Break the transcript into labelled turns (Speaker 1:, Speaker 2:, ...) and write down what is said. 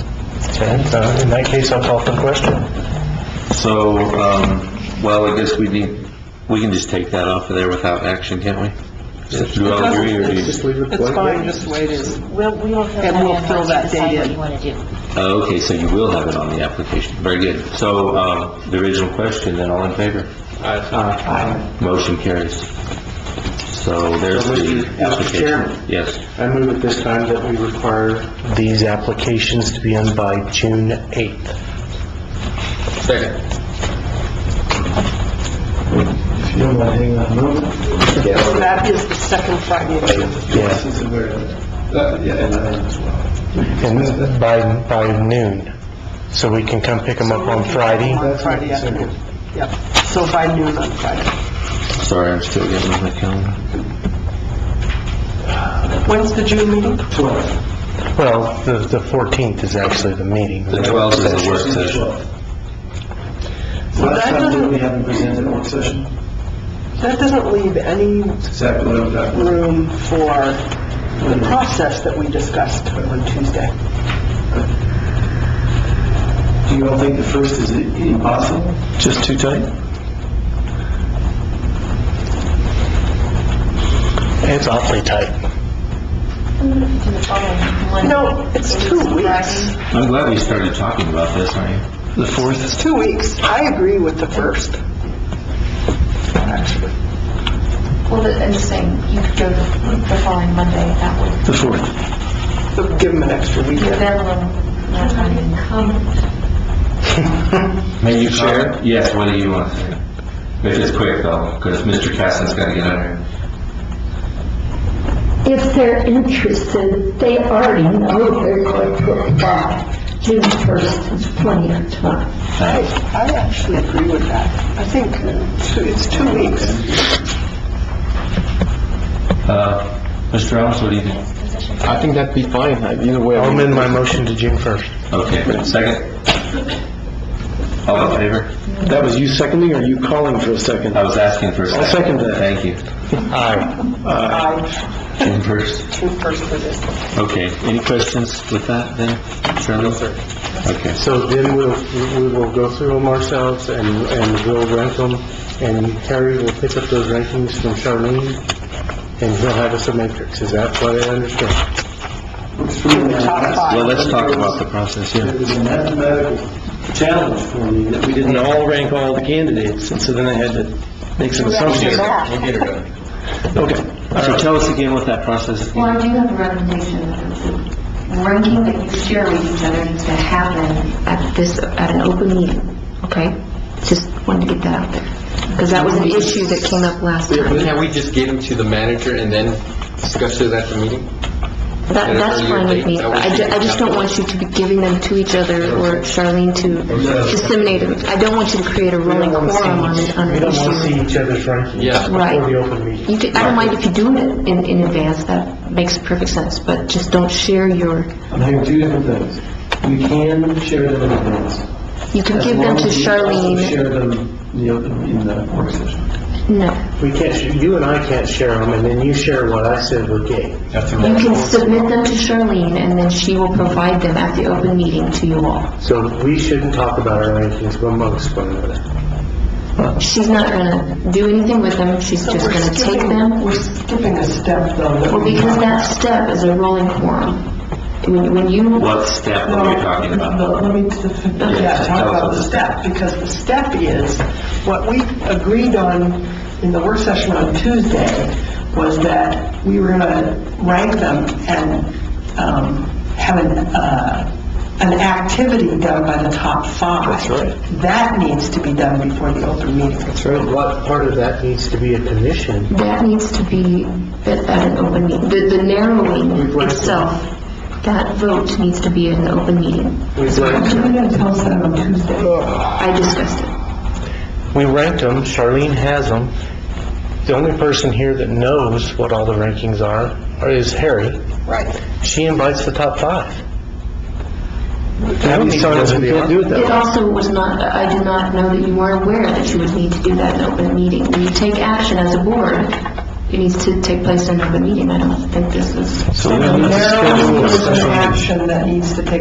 Speaker 1: Okay, uh, in that case, I'll call for the question.
Speaker 2: So, um, well, I guess we need, we can just take that off of there without action, can't we? Just do all three, or do you-
Speaker 3: It's fine, just the way it is.
Speaker 4: We'll, we will fill that in.
Speaker 3: And we'll fill
Speaker 4: once you
Speaker 3: that
Speaker 4: decide
Speaker 3: date
Speaker 4: what
Speaker 3: in.
Speaker 4: you want to do.
Speaker 2: Oh, okay, so you will have it on the application. Very good. So, um, the original question, then, all in favor? Aye. Motion carries. So there's
Speaker 1: So, Mr.
Speaker 2: the
Speaker 1: Mr.
Speaker 2: application.
Speaker 1: Chairman.
Speaker 2: Yes.
Speaker 1: I move at this time that we require these applications to be in by June 8th.
Speaker 2: Second.
Speaker 3: So that is the second Friday of June.
Speaker 1: Yeah, and by, by noon, so we can come pick them up on Friday.
Speaker 3: On Friday afternoon. Yep, so by noon on Friday.
Speaker 2: Sorry, I'm still getting on my calendar.
Speaker 3: When's the June meeting?
Speaker 1: Well, the, the 14th is actually the meeting.
Speaker 2: The 12th is the work session.
Speaker 3: Last time, didn't we
Speaker 5: haven't presented a work session?
Speaker 3: That doesn't leave any
Speaker 5: Exactly what I'm talking about.
Speaker 3: room for the process that we discussed on Tuesday.
Speaker 5: Do you all think the first is impossible? Just too tight?
Speaker 1: It's awfully tight.
Speaker 3: No, it's two weeks.
Speaker 2: I'm glad we started talking about this, aren't you?
Speaker 5: The fourth?
Speaker 3: It's two weeks. I agree with the first. Actually,
Speaker 6: Well, the- I'm just saying, you could go the the following Monday, that would,
Speaker 5: The fourth.
Speaker 3: So give them an extra
Speaker 6: give
Speaker 3: weekend.
Speaker 6: them a little more time.
Speaker 2: May you share? Yes, what do you want? If it's quick, though, because Mr. Caston's got to get on here.
Speaker 7: If they're interested, they already know they're going to apply June 1st is plenty of time.
Speaker 3: I, I actually agree with that. I think two- it's two weeks.
Speaker 2: Uh, Mr. Rouse, what do you think?
Speaker 5: I think that'd be fine, either way.
Speaker 1: I'll amend my motion to June 1st.
Speaker 2: Okay, second? All in favor?
Speaker 5: That was you seconding, or you calling for a second?
Speaker 2: I was asking for a 2nd
Speaker 5: I'll second that.
Speaker 2: Thank you.
Speaker 1: Aye.
Speaker 3: I,
Speaker 2: June first.
Speaker 3: June first for this.
Speaker 2: Okay, any questions with that then, Shirley? Okay,
Speaker 1: So then we'll, we will go through them ourselves and, and we'll rank them. And Terry will pick up those rankings from Charlene and he'll have us a matrix. Is that what I understand?
Speaker 3: Top
Speaker 2: well,
Speaker 3: five.
Speaker 2: let's talk about the process
Speaker 5: It
Speaker 2: here.
Speaker 5: was a mathematical challenge for me that we didn't all rank all the candidates, and so then I had to make some assumptions. Okay.
Speaker 2: So tell us again what that process is.
Speaker 6: Well, I do have a recommendation, the ranking that you share with each other needs to happen at this, at an open meeting, okay? Just wanted to get that out there, because that was an issue that came up last time.
Speaker 8: Now, we just give them to the manager and then discuss it at the meeting?
Speaker 6: That, that's fine with me, but I ju- I just don't want you to be giving them to each other or Charlene to disseminate them. I don't want you to create a rolling quorum on an, on
Speaker 1: We
Speaker 6: an
Speaker 1: don't want to see
Speaker 6: issue.
Speaker 1: each other's rankings.
Speaker 8: Yeah.
Speaker 6: Right.
Speaker 1: Before the open meeting.
Speaker 6: You do- I don't mind if you do it in, in advance, that makes perfect sense, but just don't share your,
Speaker 5: I'm hearing two different things. We can share them in advance.
Speaker 6: you can give them to Charlene.
Speaker 5: Share them in the open, in the work session.
Speaker 6: No,
Speaker 1: We can't, sh- you and I can't share them and then you share what I said with Gabe.
Speaker 6: you can submit them to Charlene and then she will provide them at the open meeting to you all.
Speaker 1: So we shouldn't talk about our rankings amongst one another.
Speaker 6: She's not gonna do anything with them, she's
Speaker 3: So
Speaker 6: just
Speaker 3: we're
Speaker 6: gonna take
Speaker 3: skipping-
Speaker 6: them.
Speaker 3: We're skipping a step though. that
Speaker 6: Well,
Speaker 3: we-
Speaker 6: because that step is a rolling quorum. When, when you,
Speaker 2: What step
Speaker 3: No,
Speaker 2: are we talking
Speaker 3: no,
Speaker 2: about?
Speaker 3: let me, just- yeah, talk about the step, because the step is, what we agreed on in the work session on Tuesday was that we were gonna rank them and, um, have an, uh, an activity done by the top five. That's right. That needs to be done before the open meeting.
Speaker 1: What part of that needs to be a commission?
Speaker 6: that needs to be at at an open meeting. The, the narrowing itself, that vote needs to be in an open meeting.
Speaker 1: We've ranked,
Speaker 3: You're gonna tell us that on Tuesday.
Speaker 6: I discussed it.
Speaker 1: we ranked them, Charlene has them. The only person here that knows what all the rankings are are- is Harry.
Speaker 3: Right.
Speaker 1: She invites the top five. That sounds we can't do
Speaker 6: It also was not, I did not know that you were aware that you would need to do that in an open meeting. When you take action as a board, it needs to take place in an open meeting. I don't think this is.
Speaker 3: So
Speaker 2: we don't
Speaker 3: the
Speaker 2: have to schedule
Speaker 3: narrowing
Speaker 2: a
Speaker 3: is an
Speaker 2: special meeting.
Speaker 3: action that needs to take